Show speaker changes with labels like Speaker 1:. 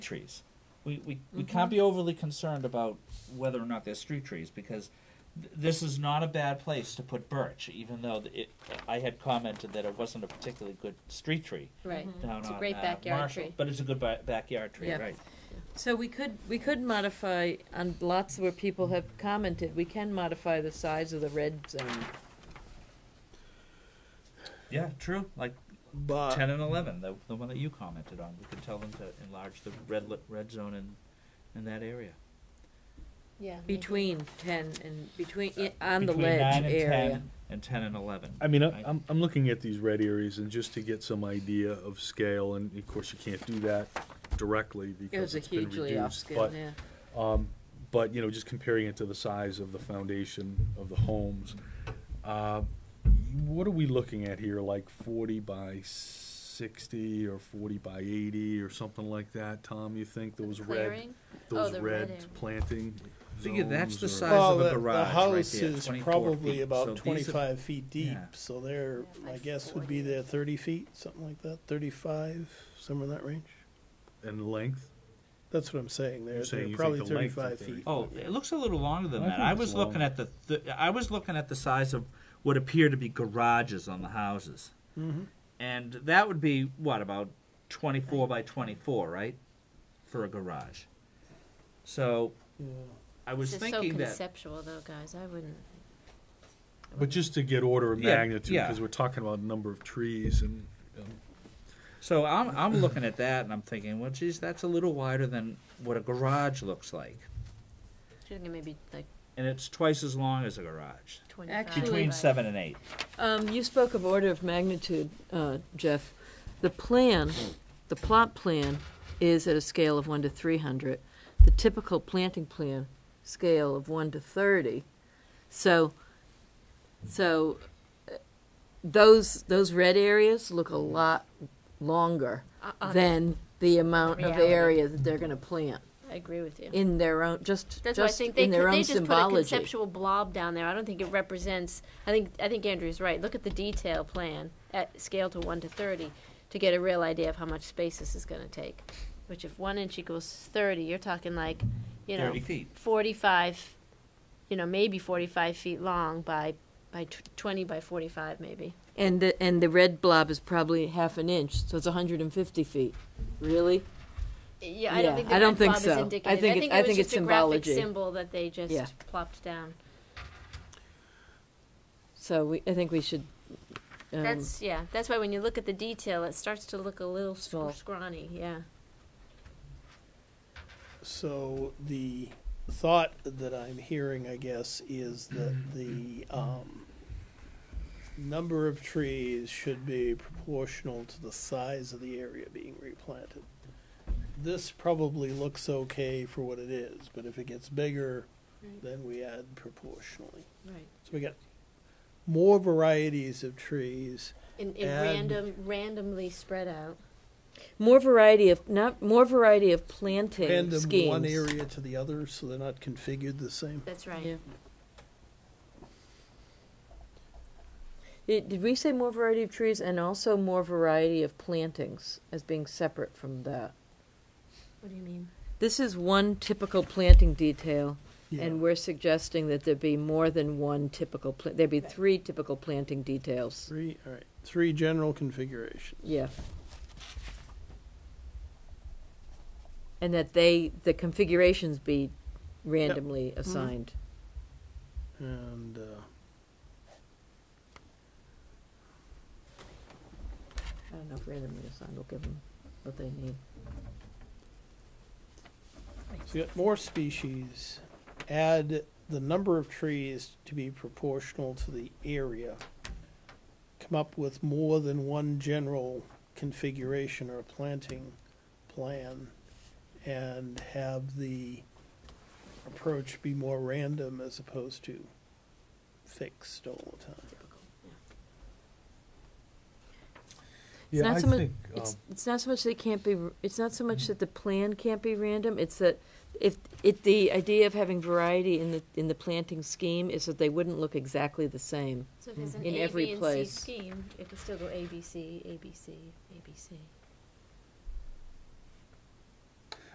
Speaker 1: trees. We, we, we can't be overly concerned about whether or not there's street trees because th- this is not a bad place to put birch, even though th- it, I had commented that it wasn't a particularly good street tree
Speaker 2: Right.
Speaker 1: down
Speaker 2: It's a
Speaker 1: on,
Speaker 2: great
Speaker 1: uh,
Speaker 2: backyard
Speaker 1: Marshall,
Speaker 2: tree.
Speaker 1: But it's a good ba- backyard tree,
Speaker 3: Yeah.
Speaker 1: right?
Speaker 3: So we could, we could modify, on lots where people have commented, we can modify the size of the red zone.
Speaker 1: Yeah, true. Like
Speaker 4: But
Speaker 1: 10 and 11, the, the one that you commented on. We could tell them to enlarge the red, li- red zone in, in that area.
Speaker 2: Yeah.
Speaker 3: Between ten and, between, i- on the
Speaker 1: Between
Speaker 3: ledge
Speaker 1: 9 and
Speaker 3: area.
Speaker 1: 10 and 10 and 11.
Speaker 4: I mean, uh, I-
Speaker 1: Right.
Speaker 4: I'm, I'm looking at these red areas and just to get some idea of scale, and of course you can't do that directly
Speaker 3: It was
Speaker 4: because
Speaker 3: a
Speaker 4: it's been
Speaker 3: hugely
Speaker 4: reduced.
Speaker 3: off-scale,
Speaker 4: But,
Speaker 3: yeah.
Speaker 4: but, you know, just comparing it to the size of the foundation of the homes. uh, What are we looking at here, like forty by sixty or forty by eighty or something like that, Tom, you think, those red,
Speaker 2: Clearing? Oh,
Speaker 4: those
Speaker 2: the red
Speaker 4: red
Speaker 2: area.
Speaker 4: planting
Speaker 1: Figure that's the
Speaker 4: zones
Speaker 1: size
Speaker 4: or-
Speaker 1: of
Speaker 5: Well,
Speaker 1: a
Speaker 5: the, the
Speaker 1: garage right
Speaker 5: house
Speaker 1: there,
Speaker 5: is
Speaker 1: 24
Speaker 5: probably
Speaker 1: feet.
Speaker 5: about
Speaker 1: So these are-
Speaker 5: 25 feet deep,
Speaker 1: Yeah.
Speaker 5: so they're,
Speaker 2: Yeah,
Speaker 5: my
Speaker 2: like
Speaker 5: guess would
Speaker 2: 40.
Speaker 5: be they're 30 feet, something like that, 35, somewhere in that range.
Speaker 4: And length,
Speaker 5: That's what I'm saying. They're,
Speaker 4: You're saying
Speaker 5: they're
Speaker 4: you think
Speaker 5: probably
Speaker 4: the length of
Speaker 5: 35
Speaker 4: 30.
Speaker 5: feet.
Speaker 1: Oh, it looks a little longer than
Speaker 4: I
Speaker 1: that.
Speaker 4: think
Speaker 1: I
Speaker 4: it's
Speaker 1: was looking at the th- I was looking at the size of what appear to be garages on the houses,
Speaker 4: Mm-hmm.
Speaker 5: Mhm.
Speaker 1: and that would be what about twenty four by twenty four, right, for a garage. So
Speaker 5: Yeah.
Speaker 1: I was
Speaker 2: This is so
Speaker 1: thinking that
Speaker 2: conceptual though, guys, I wouldn't.
Speaker 4: but just to get order of
Speaker 1: Yeah,
Speaker 4: magnitude,
Speaker 1: yeah.
Speaker 4: because we're talking about number of trees and
Speaker 1: So I'm I'm looking at that and I'm thinking, well, geez, that's a little wider than what a garage looks like,
Speaker 2: She's gonna maybe like
Speaker 1: and it's twice as long as a garage,
Speaker 2: twenty-five.
Speaker 3: Actually-
Speaker 1: between
Speaker 2: by-
Speaker 1: seven and eight.
Speaker 3: Um, you spoke of order of magnitude, uh, Jeff. The plan, the plot plan, is at a scale of one to three hundred. The typical planting plan scale of one to thirty. So, so uh, those those red areas look a lot longer
Speaker 2: Uh, uh,
Speaker 3: than the amount of
Speaker 2: Reality.
Speaker 3: area that they're going to plant
Speaker 2: I agree with you.
Speaker 3: in their own just
Speaker 2: That's why I
Speaker 3: just
Speaker 2: think they
Speaker 3: in their
Speaker 2: could,
Speaker 3: own
Speaker 2: they just put a
Speaker 3: symbology.
Speaker 2: conceptual blob down there. I don't think it represents, I think, I think Andrew's right. Look at the detail plan at scale to one to thirty to get a real idea of how much space this is gonna take. Which if one inch equals thirty, you're talking like, you know,
Speaker 1: Thirty feet.
Speaker 2: forty-five, you know, maybe forty-five feet long by, by tw- twenty by forty-five maybe.
Speaker 3: And the, and the red blob is probably half an inch, so it's 150 feet. Really?
Speaker 2: Yeah, I
Speaker 3: Yeah,
Speaker 2: don't think the
Speaker 3: I don't
Speaker 2: red
Speaker 3: think
Speaker 2: blob is
Speaker 3: so. I
Speaker 2: indicative.
Speaker 3: think it- I
Speaker 2: was
Speaker 3: think
Speaker 2: just
Speaker 3: it's
Speaker 2: a graphic
Speaker 3: symbology.
Speaker 2: symbol that they just
Speaker 3: Yeah.
Speaker 2: plopped down.
Speaker 3: So we, I think we should. Um,
Speaker 2: That's yeah. That's why when you look at the detail, it starts to look a little sc-
Speaker 3: Small.
Speaker 2: scrawny. Yeah.
Speaker 5: So the thought that I'm hearing, I guess, is that the um, number of trees should be proportional to the size of the area being replanted. This probably looks okay for what it is, but if it gets bigger,
Speaker 2: Right.
Speaker 5: then we add proportionally.
Speaker 2: Right.
Speaker 5: So we got more varieties of trees.
Speaker 2: In, in
Speaker 5: And-
Speaker 2: random, randomly spread out.
Speaker 3: more variety of not more variety of planting
Speaker 5: Random
Speaker 3: schemes.
Speaker 5: one area to the other, so they're not configured the same.
Speaker 2: That's right.
Speaker 3: Yeah. Did, did we say more variety of trees and also more variety of plantings as being separate from that?
Speaker 2: What do you mean?
Speaker 3: This is one typical planting detail,
Speaker 5: Yeah.
Speaker 3: and we're suggesting that there be more than one typical. Pla- there be
Speaker 2: Right.
Speaker 3: three typical planting details.
Speaker 5: Three, all right, three general configurations.
Speaker 3: Yeah. And that they, the configurations be randomly assigned.
Speaker 5: And uh,
Speaker 3: I don't know if randomly assigned will give them what they need.
Speaker 5: so you got more species. Add the number of trees to be proportional to the area. Come up with more than one general configuration or planting plan and have the approach be more random as opposed to fixed all the time.
Speaker 3: It's
Speaker 4: Yeah,
Speaker 3: not
Speaker 4: I
Speaker 3: so much,
Speaker 4: think,
Speaker 3: it's,
Speaker 4: um,
Speaker 3: it's not so much they can't be, r- it's not so much that the plan can't be random, it's that if, it, the idea of having variety in the, in the planting scheme is that they wouldn't look exactly the same.
Speaker 2: So if there's an
Speaker 3: Hmm. In
Speaker 2: A,
Speaker 3: every
Speaker 2: B, and
Speaker 3: place.
Speaker 2: C scheme, it could still go A B C A B C A B C.